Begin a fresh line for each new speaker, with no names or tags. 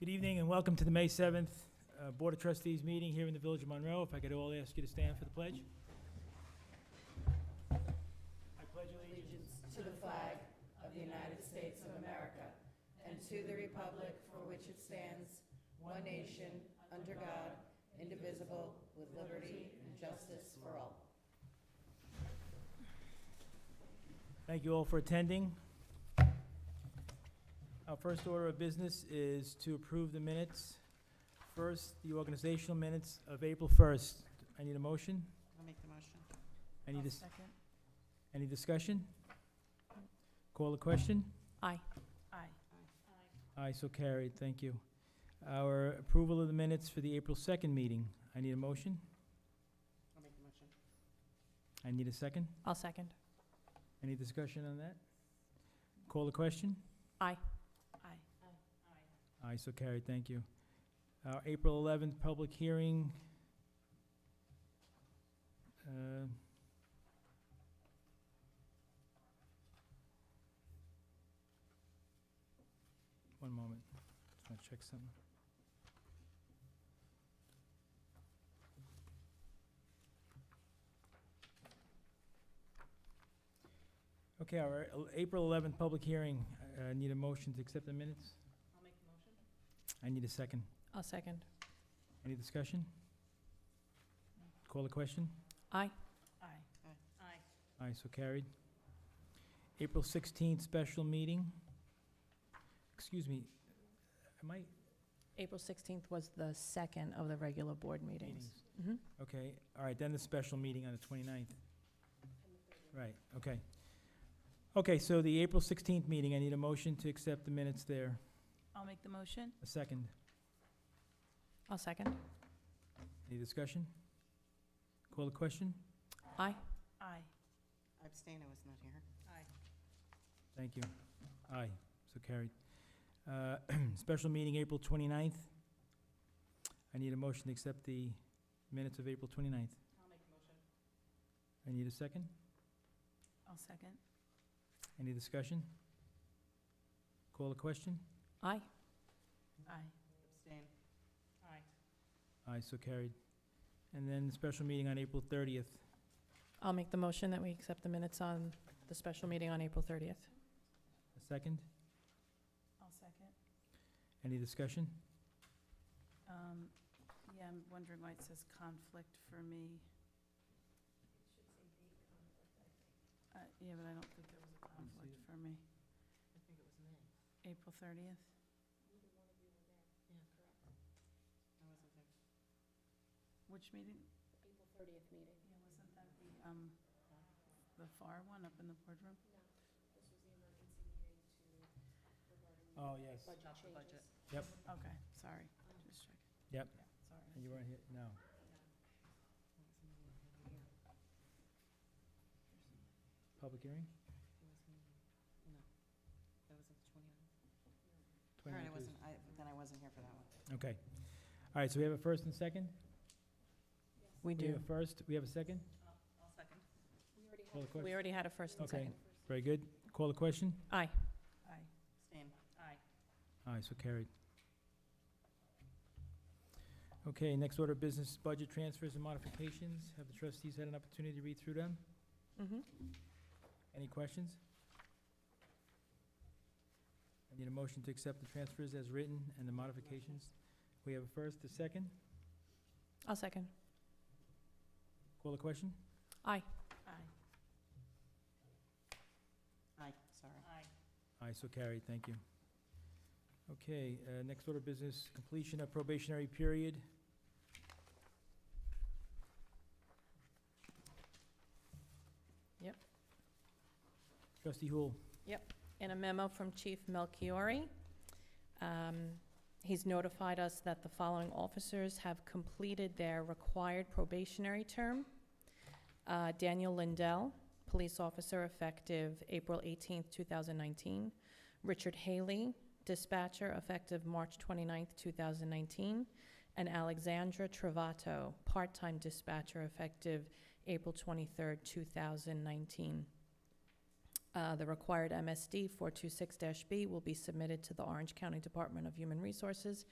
Good evening and welcome to the May 7th uh, Board of Trustees meeting here in the Village of Monroe. If I could all ask you to stand for the pledge. I pledge allegiance.
to the flag of the United States of America and to the republic for which it stands, one nation, under God, indivisible, with liberty and justice for all.
Thank you all for attending. Our first order of business is to approve the minutes. First, the organizational minutes of April 1st. I need a motion?
I'll make the motion.
I need a s- Any discussion? Call the question?
Aye. Aye.
Aye, so carried, thank you. Our approval of the minutes for the April 2nd meeting. I need a motion?
I'll make the motion.
I need a second.
I'll second.
Any discussion on that? Call the question?
Aye.
Aye, so carried, thank you. Our April 11th public hearing. uh, One moment, just want to check something. Okay, our uh, April 11th public hearing, Uh, I need a motion to accept the minutes?
I'll make the motion.
I need a second.
I'll second.
Any discussion? Call the question?
Aye. Aye. Aye.
Aye, so carried. April 16th, special meeting. Excuse me, am I?
April 16th was the second of the regular board meetings. Mhm.
Okay, all right, then the special meeting on the 29th. Right, okay. Okay, so the April 16th meeting, I need a motion to accept the minutes there.
I'll make the motion.
A second.
I'll second.
Any discussion? Call the question?
Aye.
Abstain, I was not here.
Aye.
Thank you. Aye, so carried. Uh, Special meeting, April 29th. I need a motion to accept the minutes of April 29th.
I'll make the motion.
I need a second.
I'll second.
Any discussion? Call a question?
Aye. Aye.
Abstain.
Aye.
Aye, so carried. And then special meeting on April 30th.
I'll make the motion that we accept the minutes on the special meeting on April 30th.
A second?
I'll second.
Any discussion?
Um, Yeah, I'm wondering why it says conflict for me. Uh, Yeah, but I don't think there was a
me see
conflict
it.
for me.
I think it was May.
April 30th?
I wasn't there.
Which meeting? April 30th meeting. Yeah, wasn't that the, um, the FAR one up in the boardroom?
Oh, yes.
Not the budget.
Okay, sorry, just checking.
Yep.
Yeah, Sorry.
You weren't here, no. Public hearing?
No, that was the twenty-nine.
29th
All right, I
is-
wasn't, I, then I wasn't here for that one.
Okay. All right, so we have a first and second?
We
We have a first, we have a second?
I'll second.
Call the question?
We already had a first and
Okay.
second.
Very good. Call the question?
Aye. Aye.
Abstain. Aye.
Aye, so carried. Okay, next order of business, budget transfers and modifications. Have the trustees had an opportunity to read through them?
Mm-hmm.
Any questions? I need a motion to accept the transfers as written and the modifications. We have a first, a second.
I'll second.
Call the question?
Aye.
Aye, sorry.
Aye.
Aye, so carried, thank you. Okay, uh, next order of business, completion of probationary period.
Yep.
Trustee Hool,
in a memo from Chief Melchiori. Um, He's notified us that the following officers have completed their required probationary term. Uh, Daniel Lindell, police officer effective April 18th, 2019. Richard Haley, dispatcher effective March 29th, 2019. And Alexandra Travato, part-time dispatcher effective April 23rd, 2019. Uh, The required MSD 426-B will be submitted to the Orange County Department of Human Resources